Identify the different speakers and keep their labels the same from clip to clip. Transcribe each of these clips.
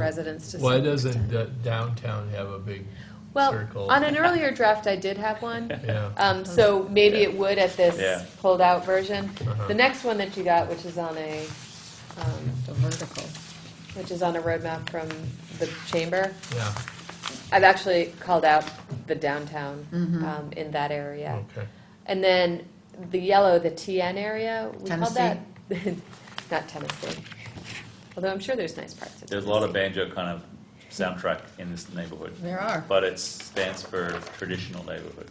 Speaker 1: residents to
Speaker 2: Why
Speaker 1: some
Speaker 2: doesn't
Speaker 1: extent.
Speaker 2: d- downtown have a big circle?
Speaker 1: Well, on an earlier draft, I did have one.
Speaker 2: Yeah.
Speaker 1: Um, so maybe it would at
Speaker 3: Yeah.
Speaker 1: this pulled-out version.
Speaker 2: Uh-huh.
Speaker 1: The next one that you got, which is on a, um,
Speaker 4: The vertical.
Speaker 1: which is on a roadmap from the chamber,
Speaker 2: Yeah,
Speaker 1: I've actually called out the downtown
Speaker 4: Mhm.
Speaker 1: um, in that area.
Speaker 2: okay.
Speaker 1: And then the yellow, the TN area, we called that,
Speaker 4: Tennessee?
Speaker 1: not Tennessee. Although I'm sure there's nice parts of
Speaker 3: There's a lot of
Speaker 1: Tennessee.
Speaker 3: banjo kind of soundtrack in this neighborhood,
Speaker 4: There are.
Speaker 3: but it stands for traditional neighborhood.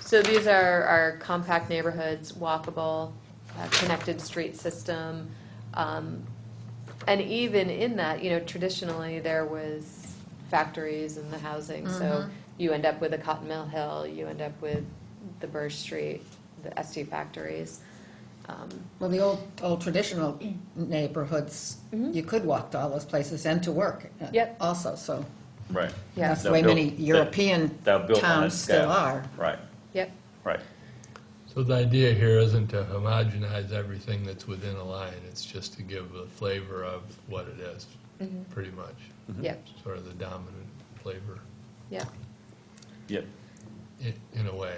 Speaker 1: So these are our compact neighborhoods, walkable, uh, connected street system. um, And even in that, you know, traditionally, there was factories and the housing. So
Speaker 4: Mhm.
Speaker 1: you end up with a Cotton Mill Hill, you end up with the Burr Street, the ST factories. Um,
Speaker 4: Well, the old, old traditional
Speaker 1: Mm.
Speaker 4: neighborhoods,
Speaker 1: Mhm.
Speaker 4: you could walk to all those places and to work. uh,
Speaker 1: Yep.
Speaker 4: Also, so
Speaker 3: Right.
Speaker 1: Yeah,
Speaker 4: that's the
Speaker 3: They're
Speaker 4: way
Speaker 3: built-
Speaker 4: many
Speaker 3: they're-
Speaker 4: European
Speaker 3: They're built on a
Speaker 4: towns still
Speaker 3: scale.
Speaker 4: are.
Speaker 3: Right,
Speaker 1: yep,
Speaker 3: right.
Speaker 2: So the idea here isn't to homogenize everything that's within a line, it's just to give the flavor of what it is,
Speaker 1: Mm-hmm.
Speaker 2: pretty much,
Speaker 3: Mm-hmm.
Speaker 1: yep,
Speaker 2: sort of the dominant flavor,
Speaker 1: yep.
Speaker 3: Yep.
Speaker 2: in, in a way.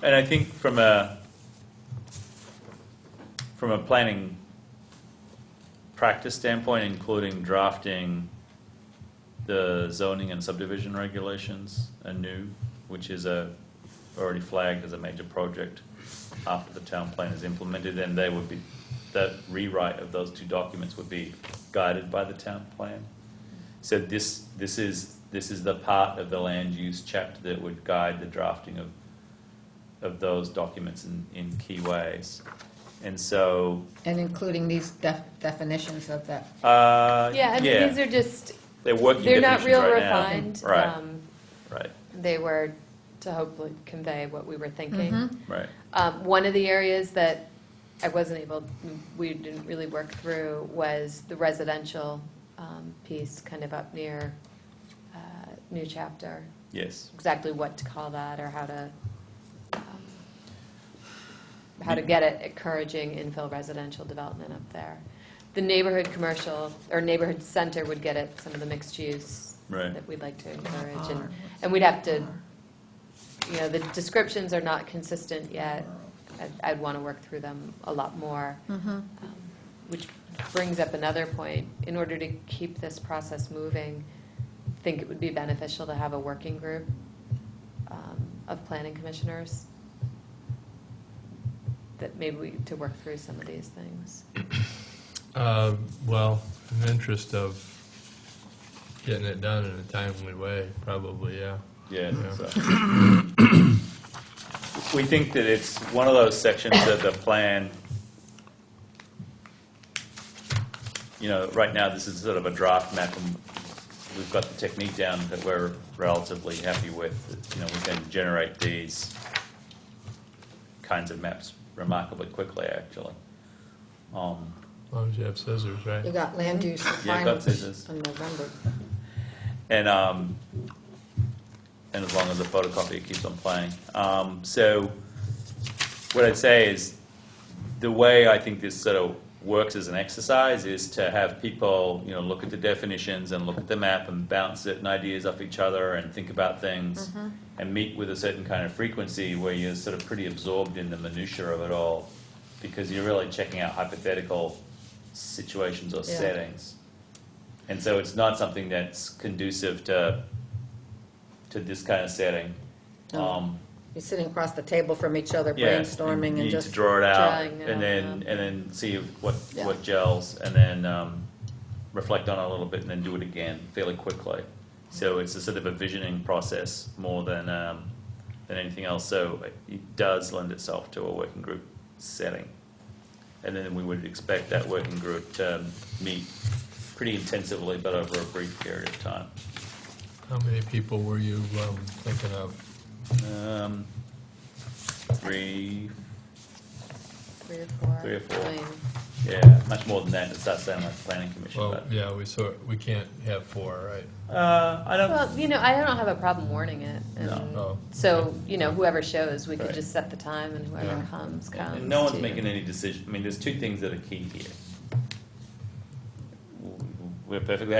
Speaker 3: And I think from a, from a planning practice standpoint, including drafting the zoning and subdivision regulations anew, which is a, already flagged as a major project after the town plan is implemented, then they would be, that rewrite of those two documents would be guided by the town plan. So this, this is, this is the part of the land use chapter that would guide the drafting of of those documents in, in key ways. And so,
Speaker 4: And including these def- definitions of that.
Speaker 3: uh,
Speaker 1: Yeah, I mean, these are just,
Speaker 3: they're working
Speaker 1: they're not
Speaker 3: definitions
Speaker 1: real
Speaker 3: right now.
Speaker 1: refined.
Speaker 3: Right,
Speaker 1: Um,
Speaker 3: right,
Speaker 1: They were to hopefully convey what we were thinking.
Speaker 4: Mhm.
Speaker 3: right.
Speaker 1: Um, One of the areas that I wasn't able, we didn't really work through was the residential um, piece kind of up near uh, New Chapter,
Speaker 3: Yes.
Speaker 1: exactly what to call that or how to, um, how to get it encouraging infill residential development up there. The neighborhood commercial, or neighborhood center would get at some of the mixed use
Speaker 3: Right.
Speaker 1: that we'd like to encourage.
Speaker 4: R,
Speaker 1: And,
Speaker 4: what's
Speaker 1: and we'd have to
Speaker 4: R?
Speaker 1: you know, the descriptions are not consistent yet. I'd- I'd want to work through them a lot more,
Speaker 4: Mhm.
Speaker 1: um, which brings up another point. In order to keep this process moving, I think it would be beneficial to have a working group um, of planning commissioners that maybe we, to work through some of these things.
Speaker 2: Uh, Well, in the interest of getting it done in a timely way, probably, yeah.
Speaker 3: Yeah.
Speaker 2: Yeah.
Speaker 3: so. We think that it's one of those sections that the plan, you know, right now, this is sort of a draft map, and we've got the technique down that we're relatively happy with. You know, we can generate these kinds of maps remarkably quickly, actually. Um,
Speaker 2: As long as you have scissors, right?
Speaker 4: You got land use
Speaker 3: Yeah, got scissors.
Speaker 4: requirements in November.
Speaker 3: And, um, and as long as the photocopier keeps on playing. Um, so what I'd say is the way I think this sort of works as an exercise is to have people, you know, look at the definitions and look at the map and bounce certain ideas off each other and think about things and meet with a certain kind of frequency where you're sort of pretty absorbed in the minutia of it all because you're really checking out hypothetical situations or
Speaker 4: Yeah.
Speaker 3: settings. And so it's not something that's conducive to, to this kind of setting.
Speaker 4: No.
Speaker 3: Um,
Speaker 4: You're sitting across the table from each other
Speaker 3: yeah,
Speaker 4: brainstorming and
Speaker 3: you need
Speaker 4: just.
Speaker 3: to draw it out,
Speaker 1: drawing it
Speaker 3: and
Speaker 1: out,
Speaker 3: then
Speaker 1: yeah.
Speaker 3: and then see what
Speaker 4: Yeah.
Speaker 3: what gels, and then um, reflect on it a little bit, and then do it again fairly quickly. So it's a sort of a visioning process more than um, than anything else. So it does lend itself to a working group setting, and then we would expect that working group to meet pretty intensively, but over a brief period of time.
Speaker 2: How many people were you um, thinking of?
Speaker 3: Um, three,
Speaker 1: Three or four.
Speaker 3: Three or four.
Speaker 1: I mean,
Speaker 3: yeah, much more than that. It starts sounding like the planning commission,
Speaker 2: Well,
Speaker 3: but.
Speaker 2: yeah, we sort, we can't have four, right?
Speaker 3: Uh, I don't.
Speaker 1: Well, you know, I don't have a problem warning it. and
Speaker 2: No. Oh.
Speaker 1: So, you know, whoever shows, we could
Speaker 3: Right.
Speaker 1: just set the time and whoever
Speaker 2: Yeah.
Speaker 1: comes, comes.
Speaker 3: and no one's
Speaker 1: too.
Speaker 3: making any decision. I mean, there's two things that are key here. we're perfectly